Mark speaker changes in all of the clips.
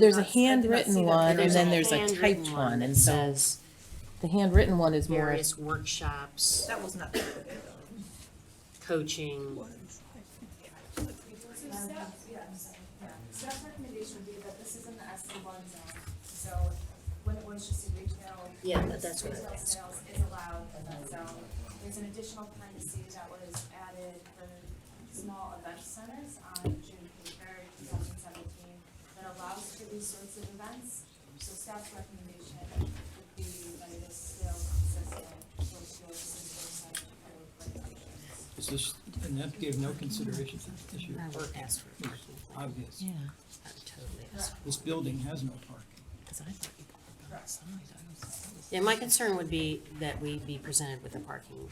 Speaker 1: There's a
Speaker 2: not- I did not see
Speaker 1: handwritten
Speaker 2: that
Speaker 1: one
Speaker 2: there
Speaker 1: and
Speaker 2: is
Speaker 1: then
Speaker 2: a
Speaker 1: there's a
Speaker 2: handwritten
Speaker 1: typed
Speaker 2: one
Speaker 1: one, and
Speaker 2: that
Speaker 1: so
Speaker 2: says
Speaker 1: the handwritten one is more,
Speaker 2: Various workshops,
Speaker 3: That was not the
Speaker 2: coaching.
Speaker 3: ones.
Speaker 4: So staff, yes, yeah, staff's recommendation would be that this is in the S one zone, so when it was just a retail.
Speaker 2: Yeah, that- that's what I
Speaker 4: Retail
Speaker 2: was
Speaker 4: sales is allowed in that zone. There's an additional privacy that was added for small event centers on June third, two thousand seventeen, that allows for these sorts of events. So staff's recommendation would be that it is still consistent with your system center code regulations.
Speaker 5: Is this, and that gave no consideration to the issue
Speaker 2: I
Speaker 5: of
Speaker 2: would
Speaker 5: parking,
Speaker 2: ask for
Speaker 5: It's
Speaker 2: parking.
Speaker 5: obvious.
Speaker 1: yeah,
Speaker 2: I would totally ask for-
Speaker 5: This building has no parking.
Speaker 1: because I thought you could park outside. I was- that was-
Speaker 2: Yeah, my concern would be that we be presented with a parking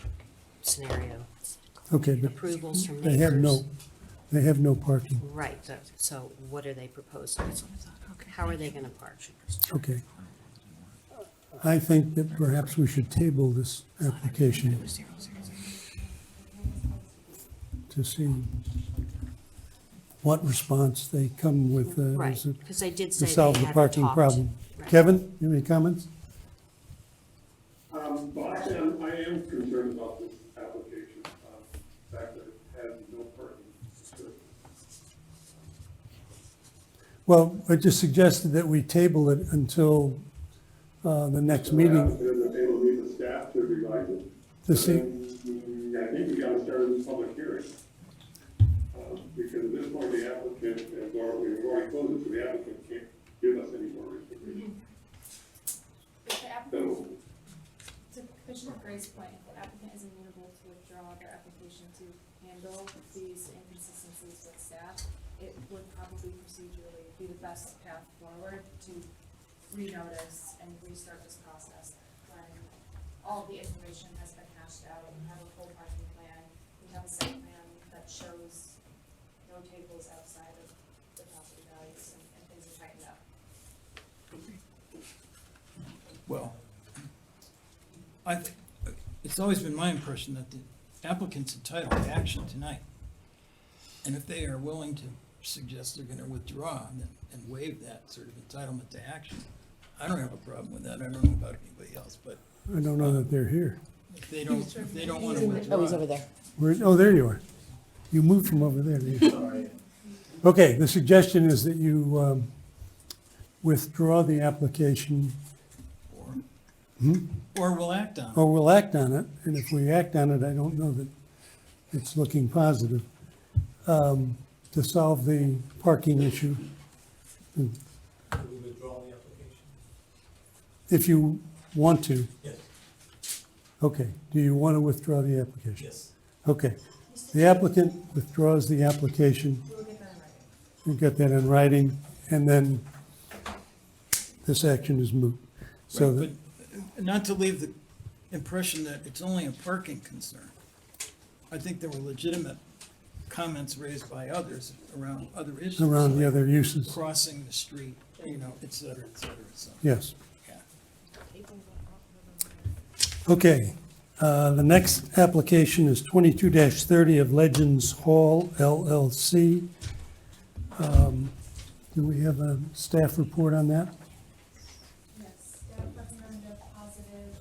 Speaker 2: scenario,
Speaker 6: Okay, but
Speaker 2: approvals from neighbors.
Speaker 6: they have no, they have no parking.
Speaker 2: Right, so- so what are they proposing? How are they gonna park?
Speaker 6: Okay. I think that perhaps we should table this application to see what response they come with uh,
Speaker 2: Right,
Speaker 6: as a-
Speaker 2: because they did
Speaker 6: to
Speaker 2: say
Speaker 6: solve
Speaker 2: they
Speaker 6: the
Speaker 2: had
Speaker 6: parking
Speaker 2: talked.
Speaker 6: problem.
Speaker 2: Right.
Speaker 6: Kevin, you have any comments?
Speaker 7: Um, well, actually, I'm, I am concerned about this application, uh, the fact that it has no parking.
Speaker 6: Well, I just suggested that we table it until uh, the next meeting
Speaker 7: Then the table needs a staff to revise it.
Speaker 6: to see.
Speaker 7: And then, I think we gotta start a public hearing. Um, Because at this point, the applicant has already, we've already closed it, so the applicant can't give us any more information.
Speaker 4: If the applicant,
Speaker 7: So,
Speaker 4: to Commissioner Gray's point, if the applicant is amenable to withdraw their application to handle these inconsistencies with staff, it would probably procedurally be the best path forward to renotice and restart this process when all the information has been hashed out, we have a full parking plan, we have a site plan that shows no tables outside of the property values and, and things are tightened up.
Speaker 5: Well, I, th- it's always been my impression that the applicant's entitled to action tonight. And if they are willing to suggest they're gonna withdraw and, and waive that sort of entitlement to action, I don't have a problem with that. I don't know about anybody else, but
Speaker 6: I don't know that they're here.
Speaker 5: if they don't, if they don't wanna withdraw.
Speaker 1: Oh, he's over there.
Speaker 6: Where, oh, there you are. You moved from over there. didn't you? Okay, the suggestion is that you um, withdraw the application,
Speaker 5: Or or we'll act on it.
Speaker 6: or we'll act on it, and if we act on it, I don't know that it's looking positive, um, to solve the parking issue.
Speaker 8: We withdraw the application?
Speaker 6: If you want to,
Speaker 8: Yes.
Speaker 6: okay, do you want to withdraw the application?
Speaker 8: Yes.
Speaker 6: Okay, the applicant withdraws the application.
Speaker 4: We'll get that in writing.
Speaker 6: we get that in writing, and then this action is moot. So
Speaker 5: But uh,
Speaker 6: that,
Speaker 5: not to leave the impression that it's only a parking concern. I think there were legitimate comments raised by others around other issues.
Speaker 6: around the
Speaker 5: like
Speaker 6: other uses,
Speaker 5: Crossing the street, you know, et cetera, et cetera, so,
Speaker 6: yes.
Speaker 5: yeah.
Speaker 6: Okay, uh, the next application is twenty-two thirty of Legends Hall LLC. Um, Do we have a staff report on that?
Speaker 4: Yes, staff recommended a positive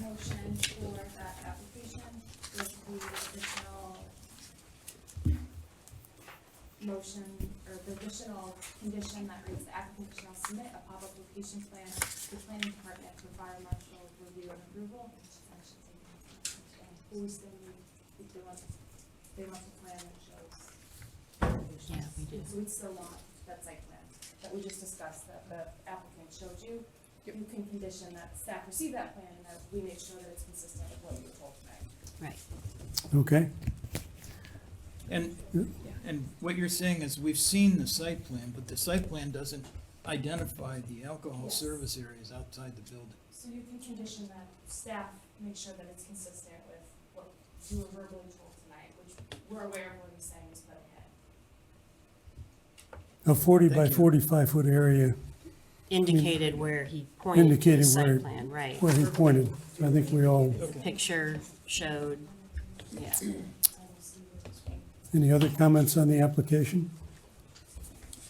Speaker 4: motion for that application with the additional motion, or the additional condition that reads the applicant shall submit a pop-up location plan to the planning department for fire marshal review and approval. I should say, And who's the, if they want, they want the plan that shows.
Speaker 2: Yeah, we do.
Speaker 4: So we still want that site plan that we just discussed, that the applicant showed you. You can condition that staff receive that plan and that we make sure that it's consistent with what you were told tonight.
Speaker 2: Right.
Speaker 6: Okay,
Speaker 5: And, and what you're saying is, we've seen the site plan, but the site plan doesn't identify the alcohol
Speaker 4: Yes.
Speaker 5: service areas outside the building.
Speaker 4: So you can condition that staff, make sure that it's consistent with what you were verbally told tonight, which we're aware of what he's saying is put ahead.
Speaker 6: a forty by
Speaker 5: Thank you.
Speaker 6: forty-five foot area
Speaker 2: Indicated where he pointed to the
Speaker 6: Indicated where-
Speaker 2: site plan, right.
Speaker 6: where he pointed. I think we all,
Speaker 2: The Picture showed, yeah.
Speaker 6: any other comments on the application?